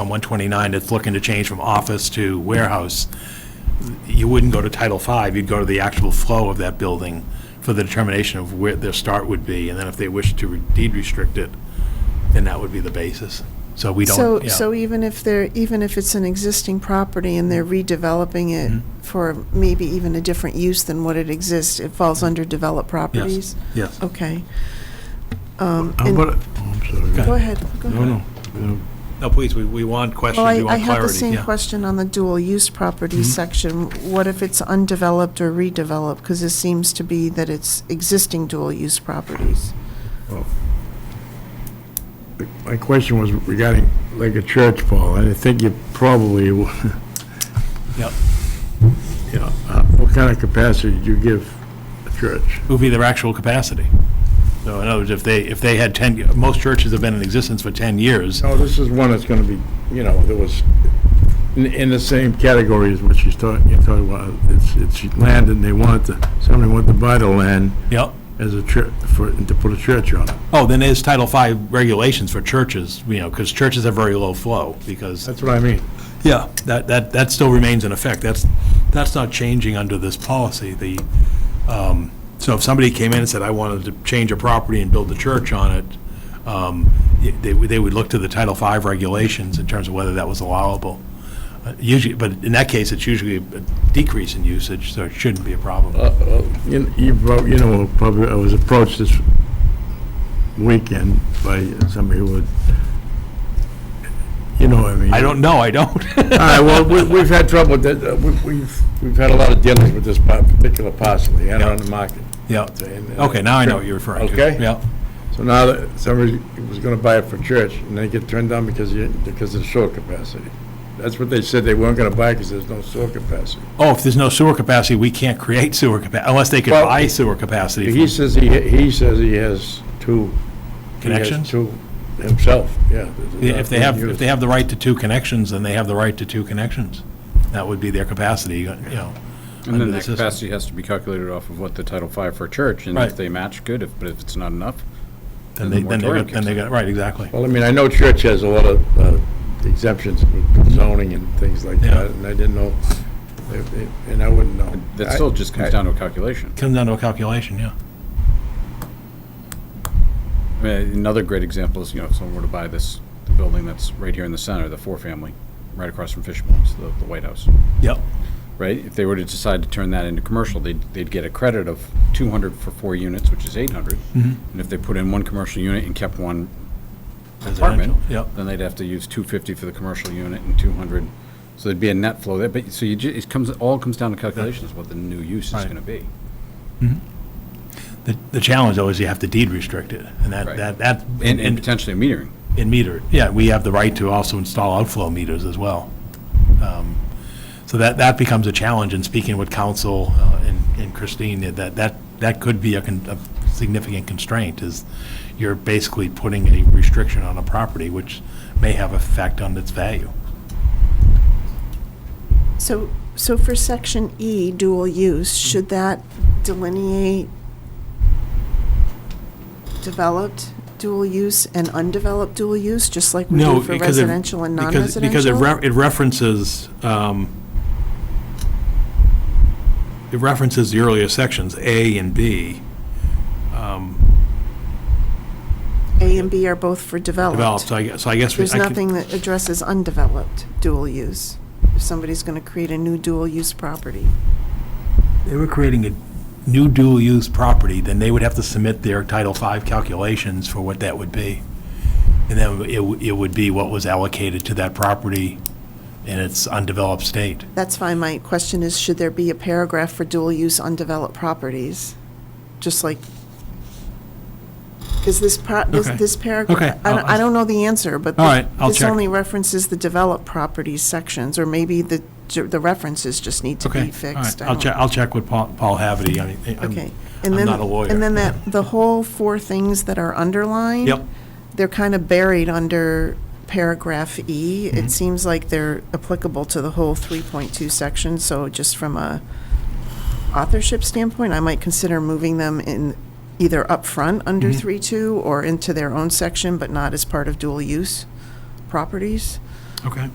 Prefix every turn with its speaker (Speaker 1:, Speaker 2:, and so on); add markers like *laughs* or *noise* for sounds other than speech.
Speaker 1: on 129 that's looking to change from office to warehouse, you wouldn't go to Title V, you'd go to the actual flow of that building for the determination of where their start would be, and then if they wish to re- deed restrict it, then that would be the basis. So we
Speaker 2: So,
Speaker 1: don't,
Speaker 2: so
Speaker 1: yeah.
Speaker 2: even if they're, even if it's an existing property and they're redeveloping it
Speaker 1: Mm-hmm.
Speaker 2: for maybe even a different use than what it exists, it falls
Speaker 1: Mm-hmm.
Speaker 2: under developed properties?
Speaker 1: Yes.
Speaker 2: Okay,
Speaker 3: How
Speaker 2: And-
Speaker 3: about, Oh, I'm
Speaker 1: Okay.
Speaker 3: sorry.
Speaker 2: go ahead. go
Speaker 3: No,
Speaker 2: ahead.
Speaker 3: no. No.
Speaker 1: No, please, we, we want questions,
Speaker 2: Well,
Speaker 1: we
Speaker 2: I, I
Speaker 1: want clarity.
Speaker 2: had the same
Speaker 1: yeah. Mm-hmm.
Speaker 2: question on the dual-use property section. What if it's undeveloped or redeveloped? Because it seems to be that it's existing dual-use properties.
Speaker 3: Uh, My question was regarding, like a church, Paul, and I think you probably, *laughs* w-
Speaker 1: Yep.
Speaker 3: you know, uh, what kind of capacity do you give a church?
Speaker 1: It would be their actual capacity. So in other words, if they, if they had 10, most churches have been in existence for 10 years.
Speaker 3: No, Oh, this is one that's going to be, you know, that was in, in the same category as what she's talking, you're talking about. It's, it's land and they wanted to, somebody wanted to buy the land
Speaker 1: Yep.
Speaker 3: as a church, for, to put a church on it.
Speaker 1: Oh, then there's Title V regulations for churches, you know, because churches have very low flow, because,
Speaker 3: That's what I mean.
Speaker 1: yeah, that, that, that still remains in effect. That's, that's not changing under this policy. The, um, so if somebody came in and said, I wanted to change a property and build a church on it, um, y- they, would- they would look to the Title V regulations in terms of whether that was allowable. Uh, Usually, but in that case, it's usually a decrease in usage, so it shouldn't be a problem.
Speaker 3: Uh, You you prob- you know, probably, I was approached this weekend by somebody who would, you know, what I mean.
Speaker 1: I don't know, I don't. *laughs*
Speaker 3: All right, well, we- we've had trouble with that, uh, we- we've, we've had a lot of dealings with this par- particular parcel, yeah, on the market.
Speaker 1: Yeah.
Speaker 3: And- and-
Speaker 1: Okay, now I know what you're referring to.
Speaker 3: Okay.
Speaker 1: Yeah,
Speaker 3: So now that somebody was gonna buy it for church, and they get turned down because you, because of sewer capacity. That's what they said, they weren't gonna buy because there's no sewer capacity.
Speaker 1: Oh, if there's no sewer capacity, we can't create sewer capacity, unless they could
Speaker 3: Well,
Speaker 1: buy sewer capacity
Speaker 3: He
Speaker 1: from
Speaker 3: says he, he says he has two He has
Speaker 1: connections.
Speaker 3: two himself, yeah.
Speaker 1: If they have, if they have the right to two connections, then they have the right to two connections. That would be their capacity, you know.
Speaker 4: And
Speaker 1: under
Speaker 4: then
Speaker 1: the
Speaker 4: that
Speaker 1: system.
Speaker 4: capacity has to be calculated off of what the Title V for a church, and
Speaker 1: Right.
Speaker 4: if they match, good, if, but if it's not enough,
Speaker 1: Then
Speaker 4: then the
Speaker 1: they, then they,
Speaker 4: moratorium
Speaker 1: got- then
Speaker 4: kicks
Speaker 1: they
Speaker 4: in.
Speaker 1: got, right, exactly.
Speaker 3: Well, I mean, I know church has a lot of uh, exemptions with zoning and things like
Speaker 1: Yeah.
Speaker 3: that, and I didn't know, if- if- and I wouldn't know.
Speaker 4: that still just
Speaker 3: I-
Speaker 4: comes down to a calculation.
Speaker 1: Comes down to a calculation, yeah.
Speaker 4: I mean, Another great example is, you know, if someone were to buy this, the building that's right here in the center, the four-family, right across from Fishbones, the, the White House,
Speaker 1: Yep,
Speaker 4: right? If they were to decide to turn that into commercial, they'd, they'd get a credit of two hundred for four units, which is eight hundred.
Speaker 1: Mm-hmm.
Speaker 4: And if they put in one commercial unit and kept one apartment,
Speaker 1: Residential, yep.
Speaker 4: then they'd have to use two fifty for the commercial unit and two hundred. So there'd be a net flow there, but, so you ju, it comes, all comes down to calculations, what the new use is
Speaker 1: Right.
Speaker 4: gonna be.
Speaker 1: the, the challenge though is you have to deed restrict it, and that,
Speaker 4: Right.
Speaker 1: that, that,
Speaker 4: And, and
Speaker 1: and,
Speaker 4: potentially metering.
Speaker 1: and meter, it. yeah, we have the right to also install outflow meters as well. Um, So that, that becomes a challenge, and speaking with council uh, and and Christine, that, that, that could be a con- a significant constraint, is you're basically putting a restriction on a property, which may have effect on its value.
Speaker 2: So, so for section E, dual use, should that delineate developed dual use and undeveloped dual use, just like we do for
Speaker 1: because it-
Speaker 2: residential and
Speaker 1: because- Because it
Speaker 2: non-residential?
Speaker 1: re- it references, um, it references the earlier sections, A and B,
Speaker 2: A and B are both for
Speaker 1: developed,
Speaker 2: developed.
Speaker 1: so I guess, so I guess. we-
Speaker 2: There's
Speaker 1: I could-
Speaker 2: nothing that addresses undeveloped dual use, if somebody's going to create a new dual use property.
Speaker 1: they were creating a new dual-use property, then they would have to submit their Title V calculations for what that would be. And then it, w- it would be what was allocated to that property in its undeveloped state.
Speaker 2: That's fine. My question is, should there be a paragraph for dual-use undeveloped properties? Just like, because this pro, this,
Speaker 1: Okay.
Speaker 2: this
Speaker 1: Okay,
Speaker 2: paragraph, I don't, I
Speaker 1: I'll-
Speaker 2: don't know the answer, but
Speaker 1: All right, I'll
Speaker 2: this
Speaker 1: check.
Speaker 2: only references the developed properties sections, or maybe the, ju- the references just need to be
Speaker 1: Okay, all
Speaker 2: fixed.
Speaker 1: right,
Speaker 2: I
Speaker 1: I'll
Speaker 2: don't-
Speaker 1: check, I'll check with Paul, Paul Haverty, I mean,
Speaker 2: Okay.
Speaker 1: I'm,
Speaker 2: And
Speaker 1: I'm
Speaker 2: then-
Speaker 1: not a lawyer.
Speaker 2: And
Speaker 1: *laughs*
Speaker 2: then that, the whole four things that are underlined.
Speaker 1: Yep.
Speaker 2: They're kind of buried under paragraph E.
Speaker 1: Mm-hmm.
Speaker 2: It seems like they're applicable to the whole 3.2 section, so just from a authorship standpoint, I might consider moving them in either up front under
Speaker 1: Mm-hmm.
Speaker 2: 3.2 or into their own section, but not as part of dual-use properties.
Speaker 1: Okay.